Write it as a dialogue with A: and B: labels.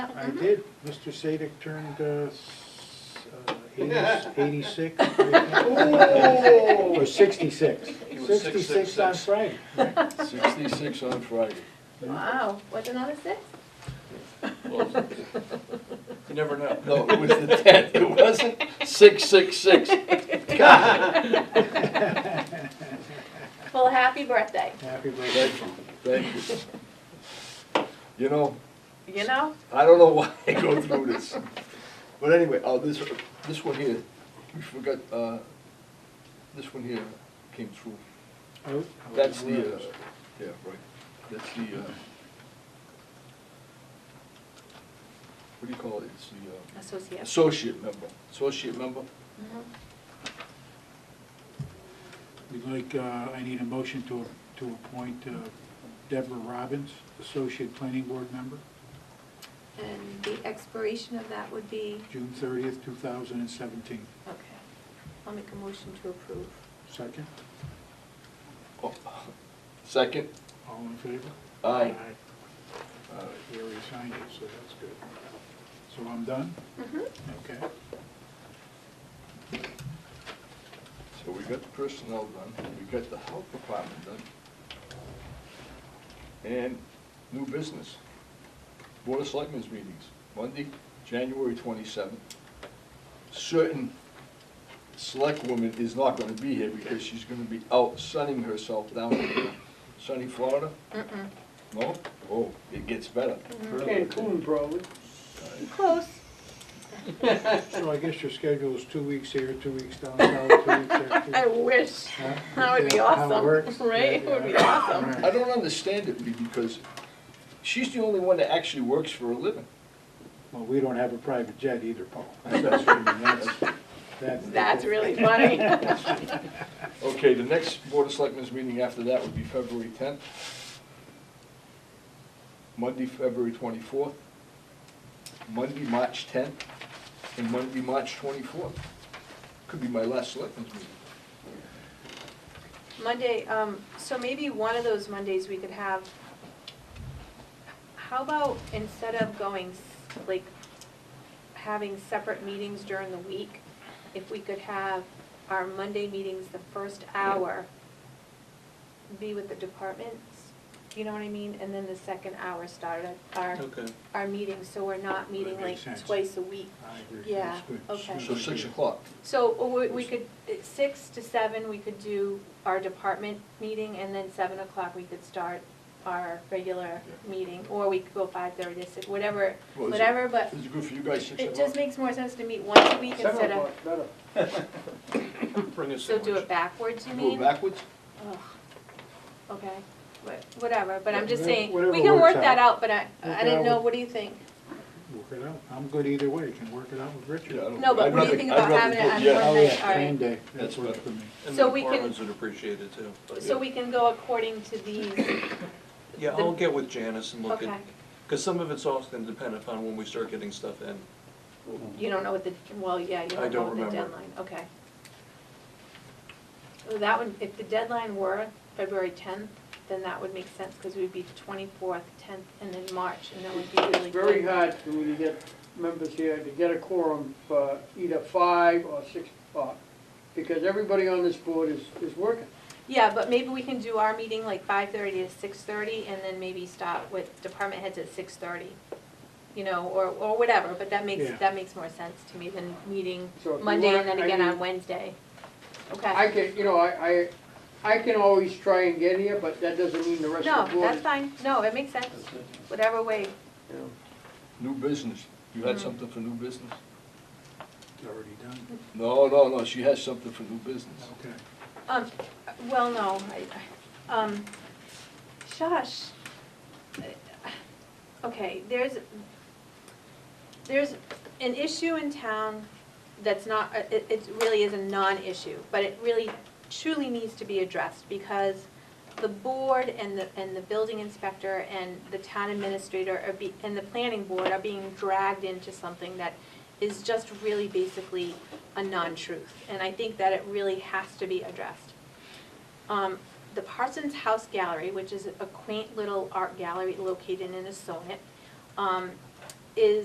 A: I
B: Mm-hmm.
A: did, Mr. Sadik turned, uh, s- uh, 80 eighty-six. Or sixty-six.
C: He was six, six,
A: Sixty-six on
C: six.
A: Friday.
D: Sixty-six on Friday.
B: Wow, what's another six?
C: You never know.
D: No, it was the tenth, it wasn't six, six, six.
B: Well, happy birthday,
A: Happy birthday.
D: Thank you, thank you. You know,
B: you know?
D: I don't know why I go through this. But anyway, oh, this, this one here, we forgot, uh, this one here came through.
A: Oh,
D: That's the, uh, yeah, right, that's the, uh, what do you call it? It's the, uh,
B: Associate.
D: associate member, associate member.
B: Mhm.
A: We'd like, uh, I need a motion to, to appoint uh, Deborah Robbins, Associate Planning Board Member,
B: And the expiration of that would be,
A: June thirtieth, two thousand and seventeen.
B: okay, I'll make a motion to approve.
A: Second,
D: Oh, Second?
A: all in favor?
D: Aye. All right.
A: We already signed it, so that's good. So I'm done?
B: Mhm.
A: Okay.
D: So we got the personnel done, we got the health department done. And new business, Board of Selectmen's meetings, Monday, January twenty-seventh. Certain select woman is not gonna be here because she's gonna be out sunning herself down in sunny Florida.
B: Mm-mm.
D: No? Oh, it gets better.
E: Mm-hmm. Cancun, probably.
B: Close.
A: So I guess your schedule is two weeks here, two weeks down south, two weeks
B: I
A: after.
B: wish.
A: Huh?
B: That would be
A: Yeah, how it
B: awesome,
A: works.
B: right?
A: Yeah,
B: It would be
A: yeah.
B: awesome.
A: Right.
D: I don't understand it Lee, because she's the only one that actually works for a living.
A: Well, we don't have a private jet either, Paul.
D: That's-
A: That's-
B: That's really funny.
D: Okay, the next Board of Selectmen's meeting after that would be February tenth. Monday, February twenty-fourth. Monday, March tenth, and Monday, March twenty-fourth. Could be my last selectmen's meeting.
B: Monday, um, so maybe one of those Mondays we could have, how about instead of going, s- like, having separate meetings during the week, if we could have our Monday meetings, the first hour, be with the departments, you know what I mean? And then the second hour start at our,
C: Okay.
B: our meetings, so we're not meeting
A: That
B: like
A: makes sense.
B: twice a week.
A: I agree.
B: Yeah,
A: That's good.
B: okay.
D: So six o'clock.
B: So or we, we could, at six to seven, we could do our department meeting, and then seven o'clock, we could start our regular
D: Yeah.
B: meeting, or we could go five thirty, six, whatever,
D: Well, is it-
B: whatever, but
D: Is it good for you guys, six
B: it just
D: o'clock?
B: makes more sense to meet once a week
E: Seven
B: instead of,
E: o'clock, better.
C: Bring us
B: so do
C: sandwich.
B: it backwards, you
D: Go
B: mean?
D: backwards?
B: Ugh. Okay, but, whatever, but I'm just
A: Whatever-
B: saying,
A: whatever
B: we can work
A: works
B: that
A: out.
B: out, but I,
A: Work
B: I
A: it out
B: didn't know,
A: with-
B: what do you think?
A: Work it out. I'm good either way. You can work it out with
D: Yeah, I
A: Richard.
D: don't-
B: No, but
D: I'd
B: what do you
D: rather-
B: think
D: I'd
B: about
D: rather
B: having it
D: put
B: on
D: yes.
B: one
A: Oh,
B: night?
A: yeah,
B: All right.
A: same day. That
D: That's
A: works
D: better.
A: for me.
C: And the
B: So we can-
C: departments would appreciate it too. but-
B: So we can go according to these,
C: Yeah, I'll get with Janice and look
B: okay,
C: at, because some of it's also going to depend upon when we start getting stuff in.
B: you don't know what the, well, yeah, you
C: I
B: don't know
C: don't
B: what the
C: remember.
B: deadline, okay. Well, that would, if the deadline were February tenth, then that would make sense, because we'd be twenty-fourth, tenth, and then March, and that would be really
E: It's very
B: good.
E: hard for me to get members here to get a quorum for either five or six o'clock, because everybody on this board is, is working.
B: Yeah, but maybe we can do our meeting like five-thirty to six-thirty, and then maybe stop with department heads at six-thirty, you know, or, or whatever, but that makes,
A: Yeah.
B: that makes more sense to me than meeting
E: So if you
B: Monday and
E: want,
B: then
E: I
B: again
E: mean-
B: on Wednesday. Okay.
E: I can, you know, I, I, I can always try and get here, but that doesn't mean the rest
B: No,
E: of the board.
B: that's fine, no, it makes sense, whatever way,
E: you know.
D: New business. You had
B: Mm.
D: something for new business?
A: It's already done.
D: No, no, no, she has something for new business.
A: Okay.
B: um, well, no, I, I- um, shush. Okay, there's, there's an issue in town that's not, it, it really is a non-issue, but it really truly needs to be addressed, because the board and the, and the building inspector and the town administrator are be, and the planning board are being dragged into something that is just really basically a non-truth, and I think that it really has to be addressed. Um, the Parsons House Gallery, which is a quaint little art gallery located in a sonnet, um, is